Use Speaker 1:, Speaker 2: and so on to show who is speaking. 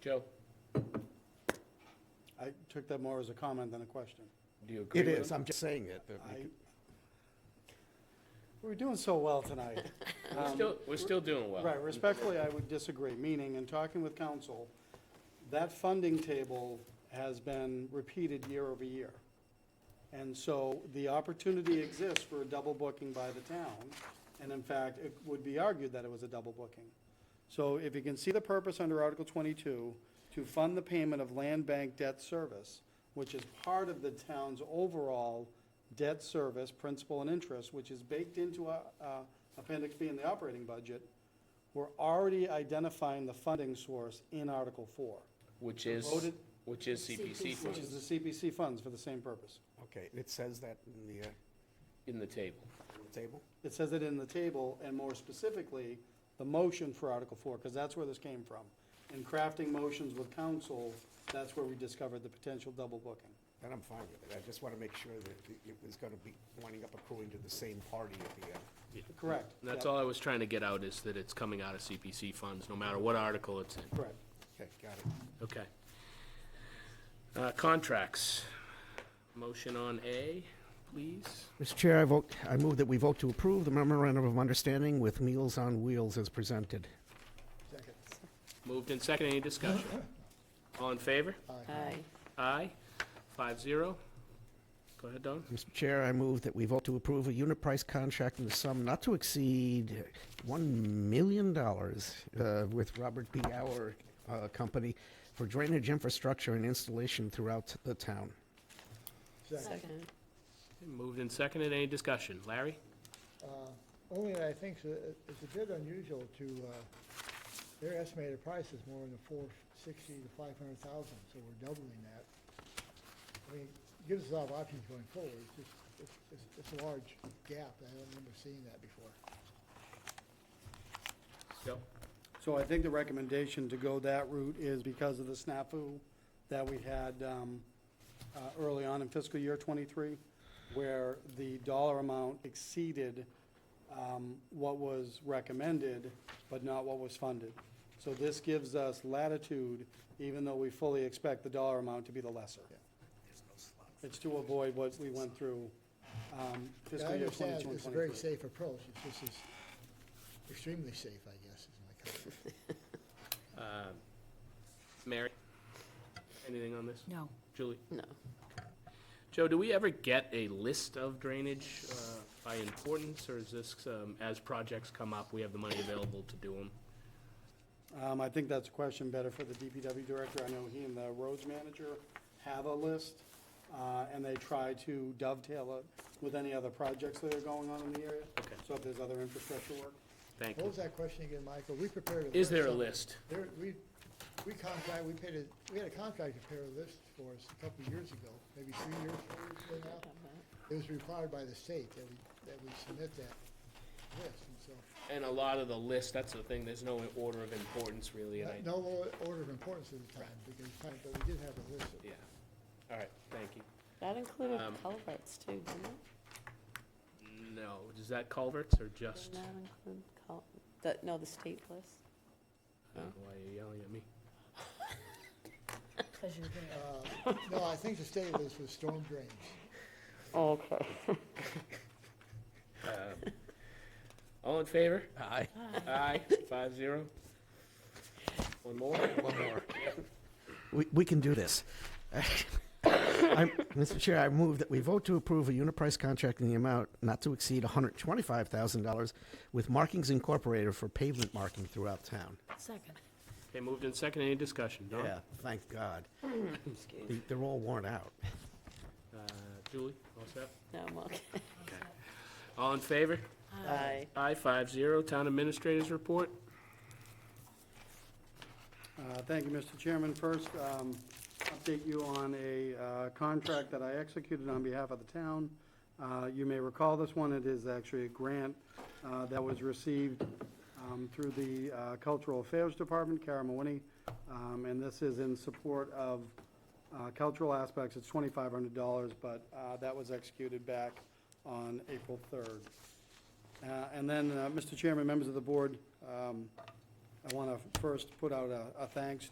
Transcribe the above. Speaker 1: Joe,
Speaker 2: I took that more as a comment than a question.
Speaker 1: do you agree
Speaker 3: It
Speaker 1: with
Speaker 3: is,
Speaker 1: him?
Speaker 3: I'm just saying it. that we
Speaker 2: I,
Speaker 3: could-
Speaker 2: we're doing so well tonight. Um,
Speaker 1: We're still, we're still doing well.
Speaker 2: Right, respectfully, I would disagree, meaning, in talking with council, that funding table has been repeated year over year. And so the opportunity exists for a double booking by the town, and in fact, it would be argued that it was a double booking. So if you can see the purpose under Article twenty-two, to fund the payment of land bank debt service, which is part of the town's overall debt service, principal and interest, which is baked into uh, uh, Appendix B in the operating budget, we're already identifying the funding source in Article four,
Speaker 1: Which is,
Speaker 2: Voted.
Speaker 1: which is CPC
Speaker 2: which
Speaker 1: funds
Speaker 2: is the CPC funds for the same purpose.
Speaker 3: Okay, it says that in the uh,
Speaker 1: in the table.
Speaker 3: in the table?
Speaker 2: It says it in the table, and more specifically, the motion for Article four, because that's where this came from. In crafting motions with council, that's where we discovered the potential double booking.
Speaker 3: Then I'm fine with it. I just want to make sure that it- it was going to be winding up accruing to the same party at the end.
Speaker 2: Correct.
Speaker 1: And That's
Speaker 2: Yep,
Speaker 1: all I was trying to get out, is that it's coming out of CPC funds, no matter what article it's in.
Speaker 2: Correct.
Speaker 3: Okay, got it.
Speaker 1: Okay. Uh, Contracts. Motion on A, please.
Speaker 3: Mr. Chair, I vote, I move that we vote to approve the memorandum of understanding with Meals on Wheels as presented.
Speaker 1: Moved and second, any discussion? All in favor?
Speaker 4: Aye.
Speaker 1: Aye, five zero. Go ahead, Don.
Speaker 3: Mr. Chair, I move that we vote to approve a unit price contract in the sum not to exceed one million dollars uh, with Robert P. Gower uh, Company for drainage infrastructure and installation throughout the town.
Speaker 4: Second.
Speaker 1: Moved and seconded, any discussion? Larry?
Speaker 5: Uh, Only I think so- it's a bit unusual to, uh, their estimated price is more in the four sixty to five hundred thousand, so we're doubling that. I mean, it gives us a lot of options going forward, it's just, it's- it's, it's a large gap, I don't remember seeing that before.
Speaker 1: Joe?
Speaker 2: So I think the recommendation to go that route is because of the snafu that we had um, uh, early on in fiscal year '23, where the dollar amount exceeded um, what was recommended, but not what was funded. So this gives us latitude, even though we fully expect the dollar amount to be the lesser. It's to avoid what we went through um,
Speaker 5: Yeah,
Speaker 2: fiscal year
Speaker 5: I
Speaker 2: '22
Speaker 5: understand,
Speaker 2: and
Speaker 5: it's a very
Speaker 2: '23.
Speaker 5: safe approach, it's just is extremely safe, I guess, is my comment.
Speaker 1: Uh, Mary? Anything on this?
Speaker 6: No.
Speaker 1: Julie?
Speaker 4: No.
Speaker 1: Joe, do we ever get a list of drainage uh, by importance, or is this, um, as projects come up, we have the money available to do them?
Speaker 2: Um, I think that's a question better for the DPW director. I know he and the roads manager have a list, uh, and they try to dovetail it with any other projects that are going on in the area.
Speaker 1: Okay.
Speaker 2: So if there's other infrastructure work.
Speaker 1: Thank
Speaker 5: What
Speaker 1: you.
Speaker 5: was that question again, Michael? We prepared a.
Speaker 1: Is there a
Speaker 5: list.
Speaker 1: list?
Speaker 5: There, we, we contract, we paid a, we had a contract to prepare a list for us a couple of years ago, maybe three years, four years ago now. It was required by the state that we, that we submit that list, and so,
Speaker 1: And a lot of the list, that's the thing, there's no order of importance really, and I,
Speaker 5: no o- order of importance at the time, because, but we did have a list.
Speaker 1: yeah. All right, thank you.
Speaker 4: That included
Speaker 1: Um,
Speaker 4: culverts too, didn't it?
Speaker 1: No, does that culverts or just?
Speaker 4: Didn't that include cul, the, no, the state list?
Speaker 1: I don't know Oh, why you're yelling at me.
Speaker 6: Because you're there.
Speaker 5: Uh, No, I think the state list was storm drains.
Speaker 4: Okay.
Speaker 1: Um, All in favor? Aye. Aye, five zero. One more? One more.
Speaker 3: We, we can do this. I'm- Mr. Chair, I move that we vote to approve a unit price contract in the amount not to exceed $125,000 with Markings Incorporated for pavement marking throughout town.
Speaker 6: Second.
Speaker 1: Okay, moved in second, any discussion? Don?
Speaker 3: Yeah, thank God. They- They're all worn out.
Speaker 1: Uh, Julie, all set?
Speaker 4: No, I'm okay.
Speaker 1: All in favor?
Speaker 4: Aye.
Speaker 1: Aye, five zero. Town Administrator's Report?
Speaker 2: Uh, Thank you, Mr. Chairman. First, um, update you on a uh, contract that I executed on behalf of the town. Uh, You may recall this one, it is actually a grant uh, that was received um, through the uh, Cultural Affairs Department, Kara Mawinney, um, and this is in support of uh, cultural aspects. It's $2,500, but uh, that was executed back on April 3rd. Uh, And then, uh, Mr. Chairman, members of the board, um, I want to first put out a a thanks